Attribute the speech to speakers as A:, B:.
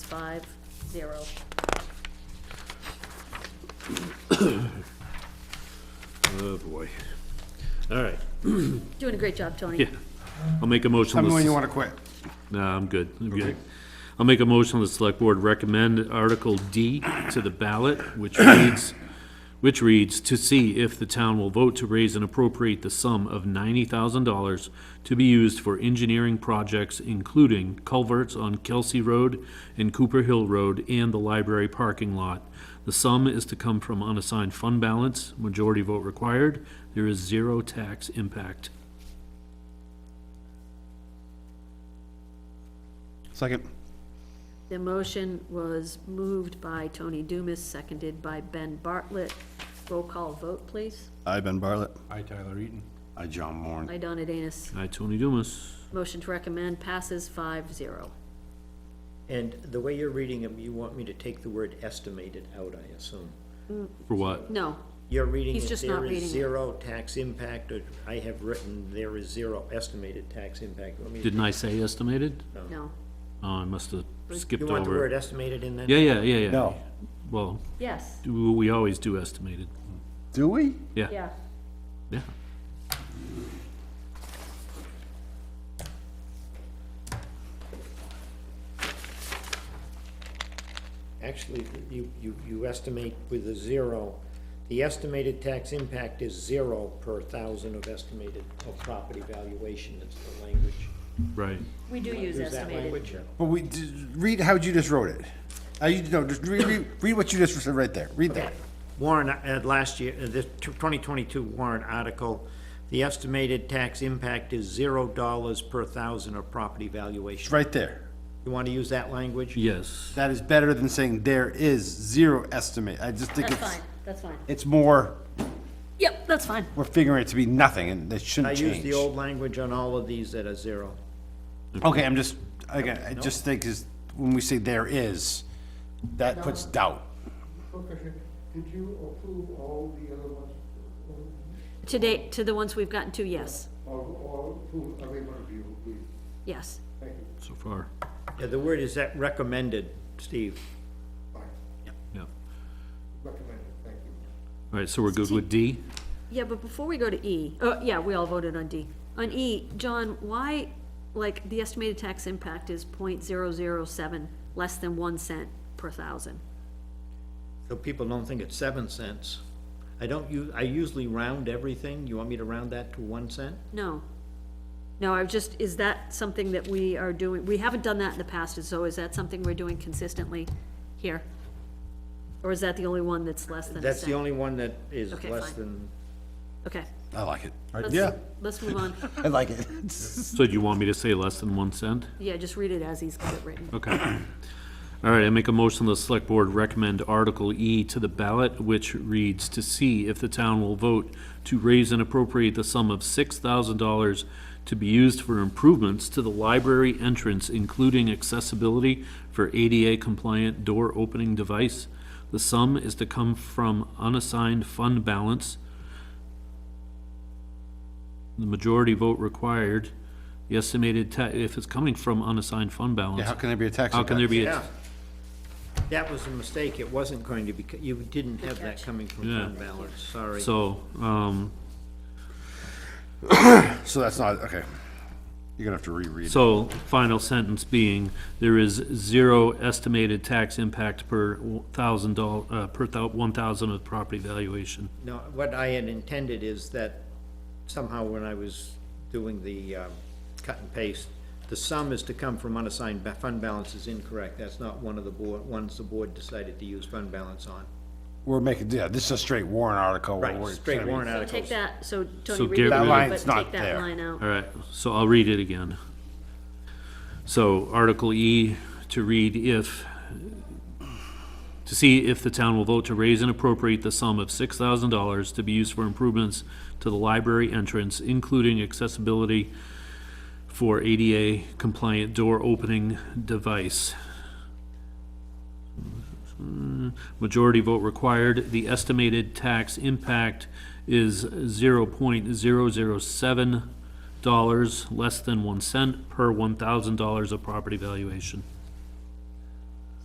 A: five, zero.
B: Oh, boy. All right,
A: Doing a great job, Tony.
B: yeah. I'll make a motion.
C: Tell me
B: let's-
C: when you want to quit.
B: No, I'm good, I'm good. I'll make a motion, the select board recommend Article D to the ballot, which reads, which reads, "To see if the town will vote to raise and appropriate the sum of ninety thousand dollars to be used for engineering projects including culverts on Kelsey Road and Cooper Hill Road and the library parking lot. The sum is to come from unassigned fund balance, majority vote required. There is zero tax impact."
C: Second.
A: The motion was moved by Tony Dumas, seconded by Ben Bartlett. Roll call vote, please.
C: I, Ben Bartlett.
D: Hi, Tyler Eaton.
C: I, John Moore.
A: By Donna Danus.
B: Aye, Tony Dumas.
A: Motion to recommend passes five, zero.
E: And the way you're reading them, you want me to take the word estimated out, I assume.
B: For what?
A: No,
E: You're reading
A: He's
E: it,
A: just not
E: there
A: reading
E: is
A: it.
E: zero tax impact, or I have written, there is zero estimated tax impact. You want me to-
B: Didn't I say estimated?
A: no,
B: Oh, I must have skipped
E: You want the
B: over.
E: word
B: it.
E: estimated in that?
B: Yeah, yeah, yeah, yeah.
C: No.
B: Well,
A: yes,
B: do- we always do estimated.
C: Do we?
B: Yeah.
A: yeah.
B: Yeah.
E: Actually, you, you, you estimate with a zero, the estimated tax impact is zero per thousand of estimated, of property valuation, that's the language.
B: Right.
A: We do use
E: Use that
A: estimated.
E: language?
C: But we, d- read how you just wrote it. Uh, you, no, just read, read, read what you just said right there. Read that.
E: Warren, uh, last year, uh, the twenty twenty-two Warren article, the estimated tax impact is zero dollars per thousand of property
C: It's
E: valuation.
C: right there.
E: You want to use that language?
B: Yes.
C: That is better than saying there is zero estimate. I just think
A: That's
C: it's,
A: fine, that's fine.
C: it's more,
A: Yep, that's fine.
C: we're figuring it to be nothing and it
E: I
C: shouldn't
E: use the
C: change.
E: old language on all of these that are zero.
C: Okay, I'm just, again, I just think is, when we say there is, that puts doubt.
F: Okay, did you approve all the other ones,
A: To date, to the ones we've gotten to, yes,
F: or, or approve every one of you, please?
A: yes.
F: Thank you.
B: So far.
E: Yeah, the word is that recommended, Steve.
F: Fine,
B: Yeah. All
F: recommended, thank you.
B: right. So we're good with D.
A: Yeah, but before we go to E, oh, yeah, we all voted on D. On E, John, why, like, the estimated tax impact is point zero zero seven, less than one cent per thousand?
E: So people don't think it's seven cents. I don't u, I usually round everything. You want me to round that to one cent?
A: No. No, I've just, is that something that we are doing, we haven't done that in the past, and so is that something we're doing consistently here? Or is that the only one that's less than a
E: That's the
A: cent?
E: only one that is
A: Okay,
E: less
A: fine.
E: than,
A: Okay.
C: I like it.
A: let's-
C: Yeah,
A: Let's move on.
C: I like it.
B: So do you want me to say less than one cent?
A: Yeah, just read it as he's got it written.
B: Okay. All right, I make a motion, the select board recommend Article E to the ballot, which reads, "To see if the town will vote to raise and appropriate the sum of six thousand dollars to be used for improvements to the library entrance, including accessibility for ADA-compliant door opening device. The sum is to come from unassigned fund balance. The majority vote required. The estimated ta, if it's coming from unassigned fund balance,
C: Yeah, how can there be a tax?
B: how can there
C: impact?
B: be, a
E: yeah. That was a mistake. It wasn't going to be, c- you didn't have that coming from
B: Yeah.
E: fund balance, sorry.
B: so, um,
C: So that's not, okay. You're gonna have to reread it.
B: so, final sentence being, there is zero estimated tax impact per thousand doll, uh, per thou, one thousand of property valuation.
E: No, what I had intended is that somehow when I was doing the um, cut and paste, the sum is to come from unassigned, ba- fund balance is incorrect. That's not one of the board, ones the board decided to use fund balance on.
C: We're making, yeah, this is a straight warrant article. where
E: Right,
C: we're-
E: straight warrant
A: So take
E: articles.
A: that, so Tony,
B: So
A: read
B: get
A: it,
B: rid of- That
A: but
C: line's not
A: take that
C: there.
A: line out.
B: All right, so I'll read it again. So Article E, to read if, to see if the town will vote to raise and appropriate the sum of six thousand dollars to be used for improvements to the library entrance, including accessibility for ADA compliant door opening device. Majority vote required. The estimated tax impact is zero point zero zero seven dollars, less than one cent per one thousand dollars of property valuation.